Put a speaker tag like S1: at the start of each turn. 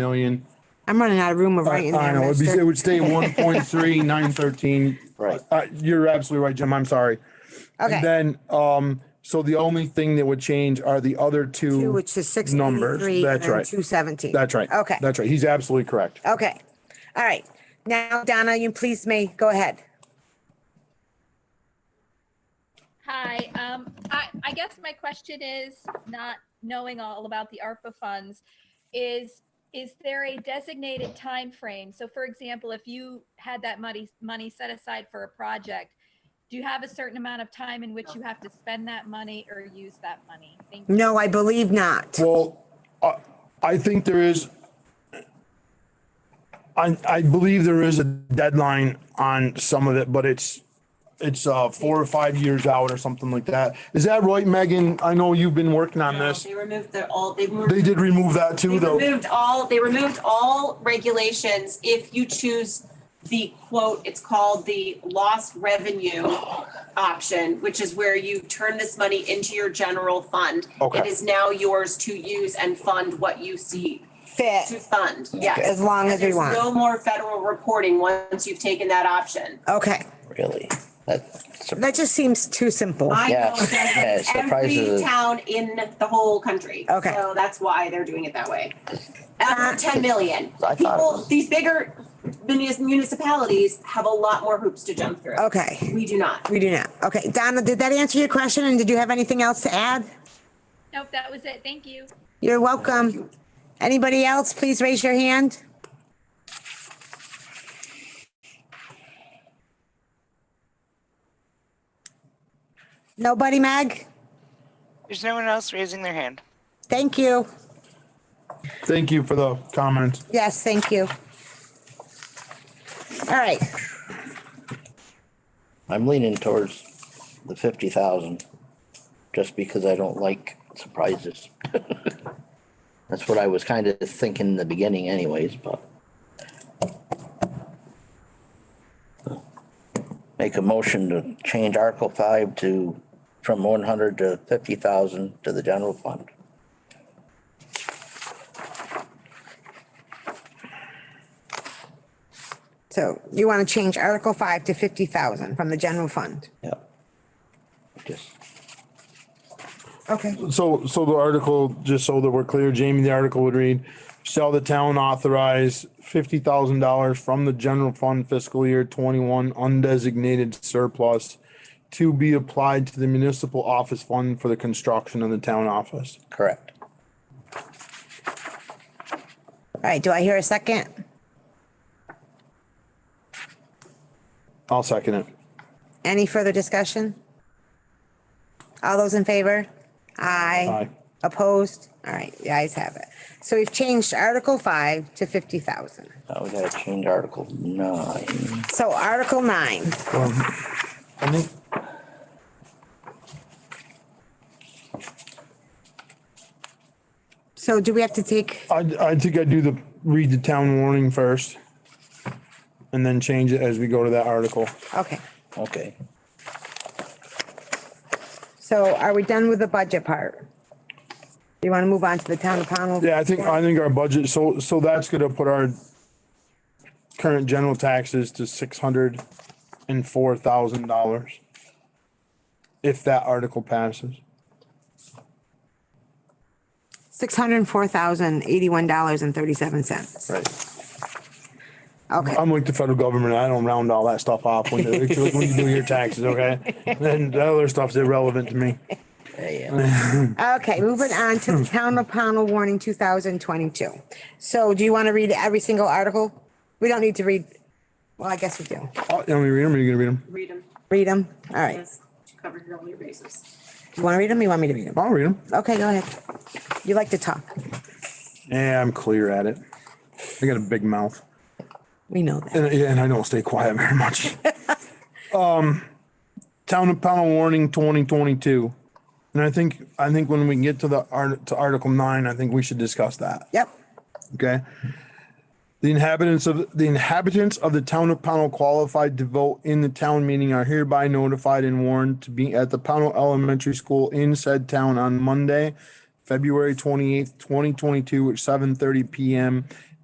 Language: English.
S1: million.
S2: I'm running out of room of
S1: I
S2: writing.
S1: I
S2: there,
S1: know, it'd be,
S2: mister.
S1: it would stay one point three nine thirteen.
S3: Right.
S1: Uh, you're absolutely right, Jim. I'm sorry. And
S2: Okay,
S1: then, um, so the only thing that would change are the other
S2: Two,
S1: two.
S2: which is six
S1: numbers,
S2: eighty-three
S1: that's
S2: and
S1: right.
S2: two seventeen.
S1: That's right.
S2: Okay,
S1: That's right. He's absolutely correct.
S2: okay. All right. Now, Donna, you please may, go ahead.
S4: Hi, um, I, I guess my question is, not knowing all about the ARPA funds, is, is there a designated time frame? So for example, if you had that money, money set aside for a project, do you have a certain amount of time in which you have to spend that money or use that money? Thank you.
S2: No, I believe not.
S1: Well, I, I think there is. I, I believe there is a deadline on some of it, but it's, it's, uh, four or five years out or something like that. Is that right, Megan? I know you've been working on this.
S5: They removed the all, they removed.
S1: They did remove that too,
S5: They
S1: though.
S5: removed all, they removed all regulations if you choose the quote, it's called the lost revenue option, which is where you turn this money into your general fund.
S1: Okay.
S5: It is now yours to use and fund what you see to
S2: Fit,
S5: fund, yes.
S2: as long as we
S5: There's
S2: want.
S5: no more federal reporting once you've taken that option.
S2: Okay,
S3: Really? That's
S2: that just seems too simple.
S5: I know
S3: Yeah,
S5: it
S3: yeah, it
S5: does every
S3: surprises.
S5: town in the whole country.
S2: Okay.
S5: So that's why they're doing it that way. After ten million,
S3: I thought it
S5: people,
S3: was-
S5: these bigger munis- municipalities have a lot more hoops to jump through.
S2: Okay,
S5: We do not.
S2: we do not. Okay, Donna, did that answer your question? And did you have anything else to add?
S4: Nope, that was it. Thank you.
S2: You're welcome. Anybody else, please raise your hand. Nobody, Meg?
S6: There's no one else raising their hand.
S2: Thank you.
S1: Thank you for the comments.
S2: Yes, thank you. All right,
S3: I'm leaning towards the fifty thousand, just because I don't like surprises. That's what I was kind of thinking in the beginning anyways, but. Make a motion to change Article five to, from one hundred to fifty thousand to the general fund.
S2: so you want to change Article 5 to 50,000 from the general fund?
S3: Yep. Just,
S2: Okay.
S1: So, so the article, just so that we're clear, Jamie, the article would read, shall the town authorize fifty thousand dollars from the general fund fiscal year twenty-one undesignated surplus to be applied to the municipal office fund for the construction of the town office?
S3: correct.
S2: All right, do I hear a second?
S1: I'll second it.
S2: Any further discussion? All those in favor? Aye.
S1: Aye.
S2: Opposed? All right, the ayes have it. So we've changed Article five to fifty thousand.
S3: Now we gotta change Article nine.
S2: So Article nine,
S1: I think,
S2: so do we have to take,
S1: I, I think I do the, read the town warning first. And then change it as we go to that article.
S2: okay,
S3: Okay.
S2: so are we done with the budget part? You want to move on to the town of Pownell?
S1: Yeah, I think, I think our budget, so, so that's gonna put our current general taxes to six hundred and four thousand dollars. If that article passes.
S2: Six hundred and four thousand, eighty-one dollars and thirty-seven cents.
S3: Right.
S2: Okay,
S1: I'm like the federal government, I don't round all that stuff off when, they- when you do your taxes, okay? And the other stuff's irrelevant to me.
S3: Yeah.
S2: okay, moving on to the town of Pownell warning two thousand twenty-two. So do you want to read every single article? We don't need to read, well, I guess we do.
S1: Oh, You want me to read them, or you gonna read them?
S5: Read them.
S2: Read them? All right.
S5: Yes, to cover your- all your bases.
S2: You want to read them? You want me to read them?
S1: I'll read them.
S2: Okay, go ahead. You like to talk.
S1: Yeah, I'm clear at it. I got a big mouth.
S2: We know that.
S1: And, yeah, and I don't stay quiet very much. um, town of panel warning twenty twenty two, and I think I think when we get to the art to Article nine, I think we should discuss that.
S2: Yep.
S1: Okay. The inhabitants of the inhabitants of the town of Pownell qualified to vote in the town meeting are hereby notified and warned to be at the Pownell Elementary School in said town on Monday, February twenty-eighth, twenty twenty-two at seven thirty PM